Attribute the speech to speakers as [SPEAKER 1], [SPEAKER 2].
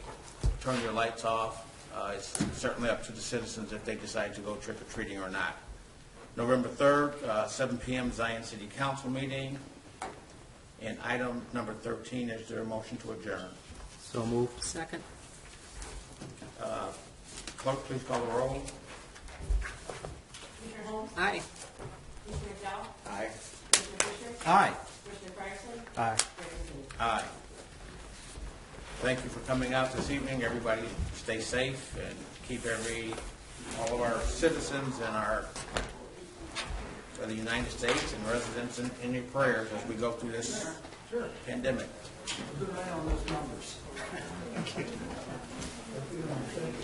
[SPEAKER 1] turn your lights off. Uh, It's certainly up to the citizens if they decide to go trick or treating or not. November 3rd, uh, 7 PM, Zion City Council meeting. And item number 13, is there a motion to adjourn?
[SPEAKER 2] So moved.
[SPEAKER 3] Second.
[SPEAKER 1] Clerk, please call the roll.
[SPEAKER 4] Commissioner Holmes?
[SPEAKER 3] Aye.
[SPEAKER 4] Commissioner McDowell?
[SPEAKER 1] Aye.
[SPEAKER 4] Commissioner Fisher?
[SPEAKER 1] Aye.
[SPEAKER 4] Commissioner Fryerson?
[SPEAKER 2] Aye.
[SPEAKER 4] Commissioner Lee?
[SPEAKER 1] Aye. Thank you for coming out this evening. Everybody stay safe and keep every, all of our citizens and our, of the United States and residents in, in your prayers as we go through this pandemic.